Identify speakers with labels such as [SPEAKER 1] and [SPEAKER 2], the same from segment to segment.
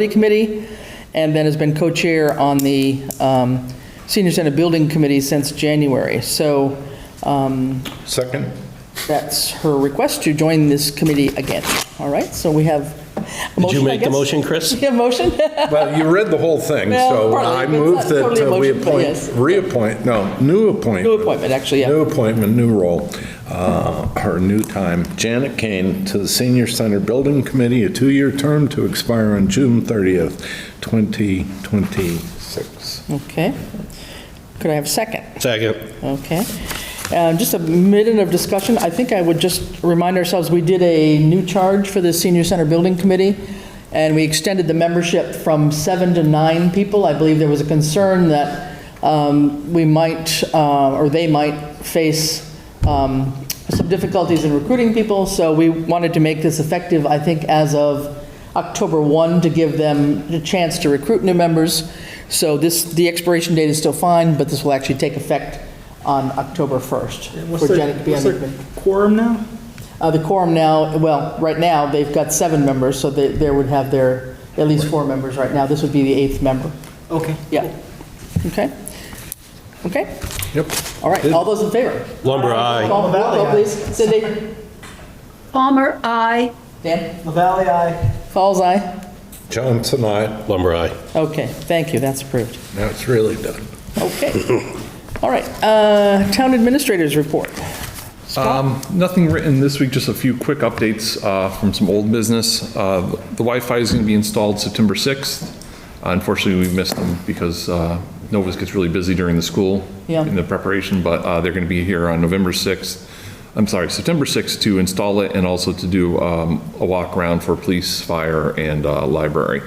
[SPEAKER 1] City Committee, and then has been co-chair on the um, Senior Center Building Committee since January. So um,
[SPEAKER 2] Second?
[SPEAKER 1] that's her request to join this committee again. All right, so we have a motion,
[SPEAKER 3] Did you
[SPEAKER 1] I
[SPEAKER 3] make the
[SPEAKER 1] guess?
[SPEAKER 3] motion, Chris?
[SPEAKER 1] We have a motion?
[SPEAKER 2] Well, you read the whole thing,
[SPEAKER 1] Well,
[SPEAKER 2] so
[SPEAKER 1] partly,
[SPEAKER 2] I
[SPEAKER 1] but it's
[SPEAKER 2] move
[SPEAKER 1] not
[SPEAKER 2] that
[SPEAKER 1] totally
[SPEAKER 2] uh, we
[SPEAKER 1] emotional, but
[SPEAKER 2] appoint,
[SPEAKER 1] yes.
[SPEAKER 2] reappoint, no, new appointment.
[SPEAKER 1] New appointment, actually, yeah.
[SPEAKER 2] New appointment, new role, uh, or new time. Janet Kane to the Senior Center Building Committee, a two-year term to expire on June 30th, 2026.
[SPEAKER 1] Okay. Could I have a second?
[SPEAKER 3] Second.
[SPEAKER 1] Okay. Um, Just a minute of discussion. I think I would just remind ourselves, we did a new charge for the Senior Center Building Committee, and we extended the membership from seven to nine people. I believe there was a concern that um, we might, uh, or they might face um, some difficulties in recruiting people, so we wanted to make this effective, I think, as of October 1 to give them the chance to recruit new members. So this, the expiration date is still fine, but this will actually take effect on October 1st
[SPEAKER 4] What's
[SPEAKER 1] for
[SPEAKER 4] the-
[SPEAKER 1] Janet to be on the
[SPEAKER 4] what's the
[SPEAKER 1] committee.
[SPEAKER 4] Quorum now?
[SPEAKER 1] Uh, The quorum now, well, right now, they've got seven members, so they, they would have their, at least four members right now. This would be the eighth member.
[SPEAKER 4] Okay.
[SPEAKER 1] Yeah. Okay? Okay?
[SPEAKER 2] Yep.
[SPEAKER 1] All right. All those in favor?
[SPEAKER 3] Lumber, aye.
[SPEAKER 1] Call the roll, please. Cindy?
[SPEAKER 5] Palmer, I.
[SPEAKER 1] Dan?
[SPEAKER 4] LaValle, aye.
[SPEAKER 1] Falls eye?
[SPEAKER 2] Johnson, aye.
[SPEAKER 3] Lumber, aye.
[SPEAKER 1] Okay, thank you, that's approved.
[SPEAKER 2] Now it's really done.
[SPEAKER 1] Okay. All right, uh, Town Administrators Report.
[SPEAKER 6] Um, Nothing written this week, just a few quick updates uh, from some old business. Uh, The Wi-Fi is going to be installed September 6th. Unfortunately, we missed them because uh, Novus gets really busy during the school
[SPEAKER 1] Yeah.
[SPEAKER 6] in the preparation, but uh, they're going to be here on November 6th, I'm sorry, September 6th to install it and also to do um, a walk around for police, fire, and uh, library.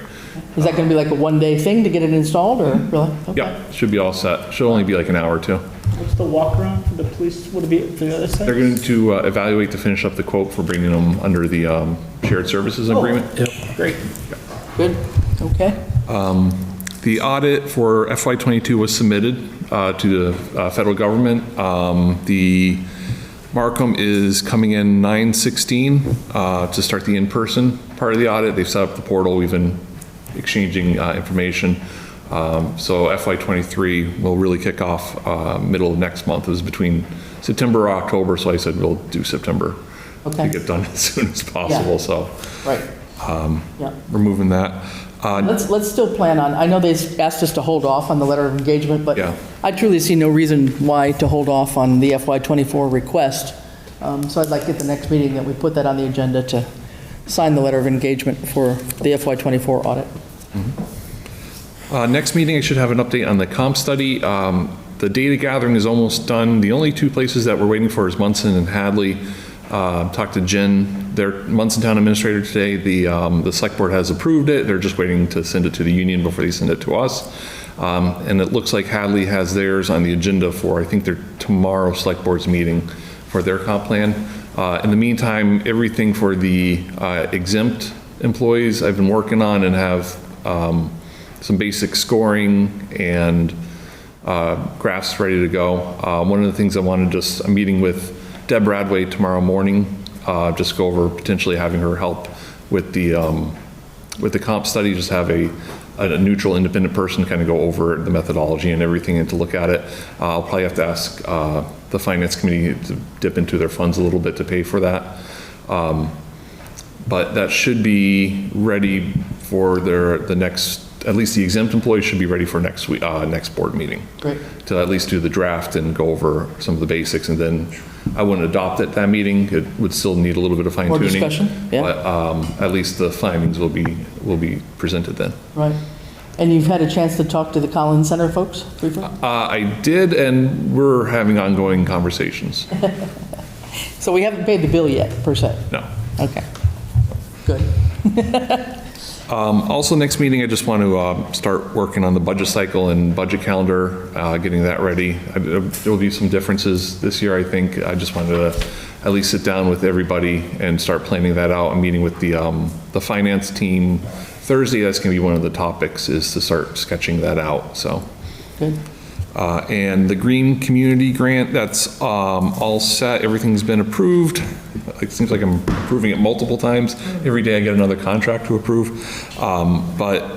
[SPEAKER 1] Is that going to be like a one-day thing to get it installed, or really? Okay.
[SPEAKER 6] Yeah, should be all set. Should only be like an hour or two.
[SPEAKER 4] What's the walk around for the police? Would it be for the other side?
[SPEAKER 6] They're going to uh, evaluate to finish up the quote for bringing them under the um, shared services
[SPEAKER 1] Oh,
[SPEAKER 6] agreement.
[SPEAKER 4] Great.
[SPEAKER 1] Good, okay.
[SPEAKER 6] The audit for FY22 was submitted uh, to the uh, federal government. Um, The Markham is coming in 9:16 uh, to start the in-person part of the audit. They've set up the portal, we've been exchanging uh, information. Um, So FY23 will really kick off uh, middle of next month, it was between September or October, so I said we'll do September
[SPEAKER 1] Okay.
[SPEAKER 6] to get done as soon as possible, so
[SPEAKER 1] Right. Yeah,
[SPEAKER 6] we're moving that. Uh,
[SPEAKER 1] let's, let's still plan on, I know they asked us to hold off on the letter of engagement, but
[SPEAKER 6] Yeah.
[SPEAKER 1] I truly see no reason why to hold off on the FY24 request. Um, So I'd like at the next meeting that we put that on the agenda to sign the letter of engagement for the FY24 audit.
[SPEAKER 6] Uh, Next meeting, I should have an update on the comp study. Um, The data gathering is almost done. The only two places that we're waiting for is Munson and Hadley. Uh, Talked to Jen, their Munson Town Administrator today. The, um, the Select Board has approved it. They're just waiting to send it to the union before they send it to us. Um, And it looks like Hadley has theirs on the agenda for, I think, their tomorrow Select Board's meeting for their comp plan. Uh, In the meantime, everything for the uh, exempt employees I've been working on and have um, some basic scoring and uh, graphs ready to go. Uh, One of the things I want to just, I'm meeting with Deb Radway tomorrow morning, uh, just go over potentially having her help with the, um, with the comp study, just have a, a neutral, independent person kind of go over the methodology and everything and to look at it. Uh, I'll probably have to ask uh, the finance committee to dip into their funds a little bit to pay for that but that should be ready for their, the next, at least the exempt employees should be ready for next week, uh, next board meeting.
[SPEAKER 1] Great.
[SPEAKER 6] To at least do the draft and go over some of the basics, and then I wouldn't adopt at that meeting, it would still need a little bit of fine tuning.
[SPEAKER 1] discussion, yeah.
[SPEAKER 6] But, um, at least the findings will be, will be presented then.
[SPEAKER 1] Right. And you've had a chance to talk to the Collins Center folks briefly?
[SPEAKER 6] Uh, I did, and we're having ongoing conversations,
[SPEAKER 1] So we haven't paid the bill yet, per se?
[SPEAKER 6] no.
[SPEAKER 1] Okay. Good.
[SPEAKER 6] Also, next meeting, I just want to uh, start working on the budget cycle and budget calendar, uh, getting that ready. I- There will be some differences this year, I think. I just wanted to at least sit down with everybody and start planning that out. I'm meeting with the, um, the finance team Thursday. That's going to be one of the topics, is to start sketching that out, so.
[SPEAKER 1] Good.
[SPEAKER 6] Uh, And the Green Community Grant, that's um, all set, everything's been approved. It seems like I'm approving it multiple times. Every day I get another contract to approve. Um, But